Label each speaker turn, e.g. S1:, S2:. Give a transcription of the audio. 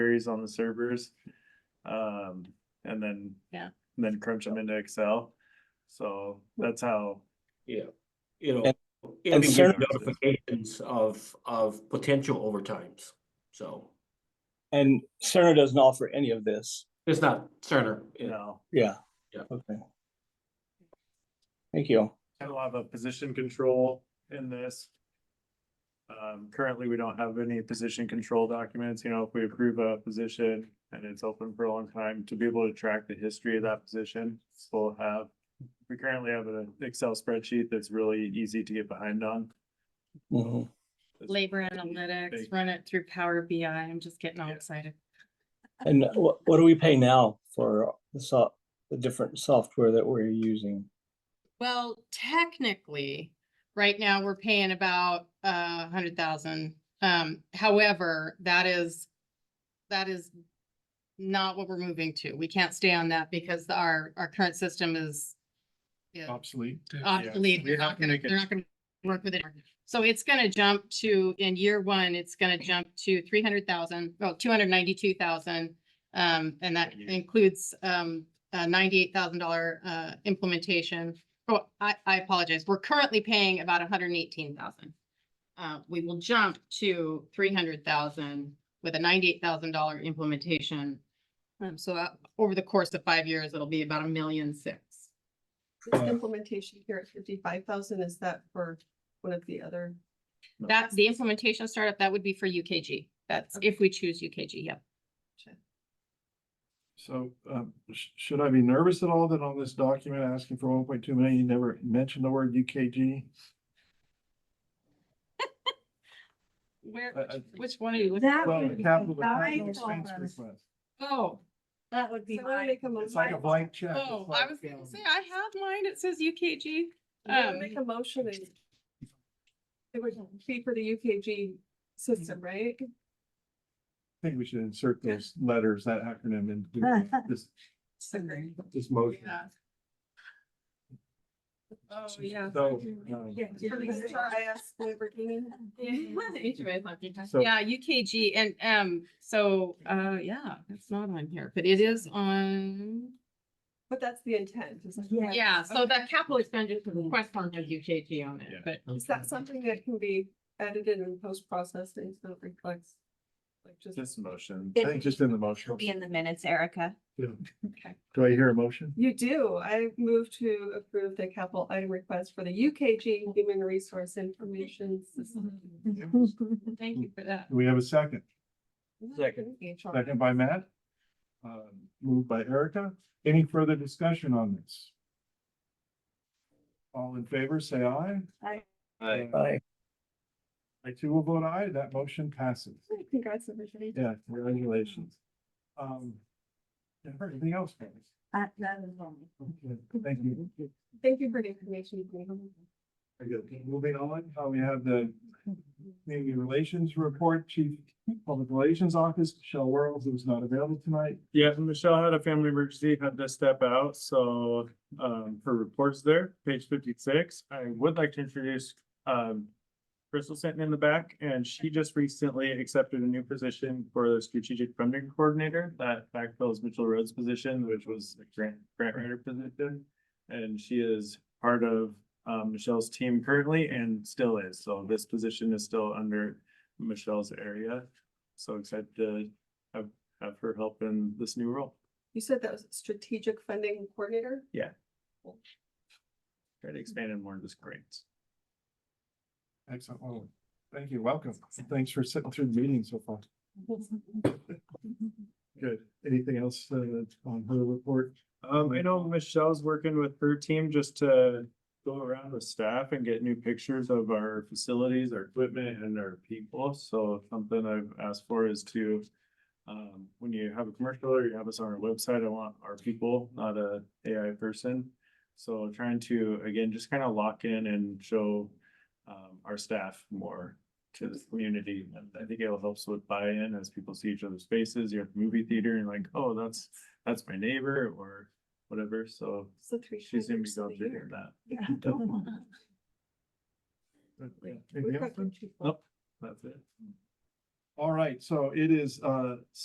S1: queries on the servers. Um, and then.
S2: Yeah.
S1: and Then crunch them into Excel. So that's how,
S3: Yeah, you know,
S4: And-
S3: and we get
S4: certain-
S3: notifications of, of potential overtimes, so
S4: And Cerner doesn't offer any of this.
S3: it's not Cerner.
S1: you
S3: you know.
S1: know,
S4: Yeah.
S3: Yeah.
S4: Okay. Thank you.
S1: and we'll have a position control in this. Um, currently, we don't have any position control documents, you know, if we approve a position and it's open for a long time, to be able to track the history of that position, we'll have. We currently have an Excel spreadsheet that's really easy to get behind on.
S4: Mhm.
S2: Labor
S1: Big.
S2: analytics, run it through Power BI. I'm just getting all
S1: Yeah.
S2: excited.
S4: And what, what do we pay now for the so, the different software that we're using?
S2: Well, technically, right now, we're paying about uh, a hundred thousand. Um, however, that is, that is not what we're moving to. We can't stay on that because the- our, our current system is is
S5: obsolete.
S2: obsolete.
S5: We
S2: They're
S5: have
S2: not
S5: to
S2: gonna,
S5: make it-
S2: they're not gonna work with it. So it's gonna jump to, in year one, it's gonna jump to three hundred thousand, well, two hundred ninety-two thousand. Um, and that
S1: Yeah.
S2: includes, um, a ninety-eight thousand dollar, uh, implementation. Oh, I, I apologize. We're currently paying about hundred and eighteen thousand. Uh, we will jump to three hundred thousand with a ninety-eight thousand dollar implementation. Um, so uh, over the course of five years, it'll be about a million six.
S6: This
S4: Uh,
S6: implementation here at fifty-five thousand, is that for one of the other?
S2: That's the implementation startup, that would be for UKG. That's if we choose UKG, yep.
S5: So, um, sh- should I be nervous at all that on this document asking for one point two million, you never mentioned the word UKG?
S2: Where,
S5: I- I-
S2: which one are you looking?
S7: That
S5: Well,
S7: would
S5: the
S7: be
S5: capital
S7: my
S5: capital expense
S7: problem.
S5: request.
S2: Oh,
S7: That would be
S6: So I wanna
S7: my,
S6: make a mo-
S5: It's like a blank check. It's
S2: oh, I
S5: like,
S2: was gonna
S5: um,
S2: say, I have mine, it says UKG.
S6: I'm gonna
S2: Um,
S6: Make a motion and. It would be for the UKG system, right?
S5: I think we should insert those letters, that acronym into this, this motion.
S2: yeah.
S6: Oh, yeah.
S5: So, um,
S7: Yeah,
S6: For the TRIS Lamborghini.
S5: So-
S2: Yeah, UKG and, um, so, uh, yeah, it's not on here, but it is on.
S6: But that's the intent. is it?
S7: Yeah.
S2: Yeah, so that capital expenditure request fund has UKG on
S1: Yeah.
S2: it, but
S6: Is that something that can be edited and post-processed and it's not reflects? Like just,
S1: This motion.
S5: I think just in the motion.
S7: It'll be in the minutes, Erica.
S6: okay.
S5: Do I hear a motion?
S6: You do. I move to approve the capital item request for the UKG Human Resource Information System.
S2: thank you for that.
S5: Do we have a second?
S4: Second.
S6: HR.
S5: Second by Matt. Uh, moved by Erica. Any further discussion on this? All in favor, say aye.
S7: Aye.
S5: Aye.
S4: Aye.
S5: I too will vote aye. That motion passes.
S6: Congrats, everybody.
S5: Yeah, congratulations. Um, Jennifer, anything else? guys?
S7: Uh, that is only.
S5: Okay, Thank you.
S6: Thank you for the information. you gave.
S5: Very good. Moving on, uh, we have the Community Relations Report, Chief Public Relations Office, Michelle Worrells, who's not available tonight.
S1: Yeah, Michelle had a family emergency, had to step out, so um her reports there, page fifty-six. I would like to introduce um Crystal sitting in the back, and she just recently accepted a new position for the strategic funding coordinator. That backfills Mitchell Rhodes' position, which was a grant grant writer position. And she is part of um Michelle's team currently and still is, so this position is still under Michelle's area. So excited to have her help in this new role.
S6: You said that was strategic funding coordinator?
S1: Try to expand in more of this grants.
S5: Excellent. Well, Thank you. Welcome. Thanks for sitting through the meeting so far. Good. Anything else uh, on her report?
S1: Um, I know Michelle's working with her team just to go around with staff and get new pictures of our facilities, our equipment and our people. So something I've asked for is to um, when you have a commercial or you have us on our website, I want our people, not a AI person. So trying to, again, just kind of lock in and show um, our staff more to the community. And I think it will help with buy-in as people see each other's faces. You're at the movie theater and like, oh, that's, that's my neighbor or whatever. So
S6: It's the three.
S1: she's gonna be
S6: hundreds of the
S1: going to
S6: year.
S1: hear that.
S5: Anything
S6: We've
S5: else?
S6: got them too far.
S1: Oh, Nope. That's it.
S5: All right, so it is uh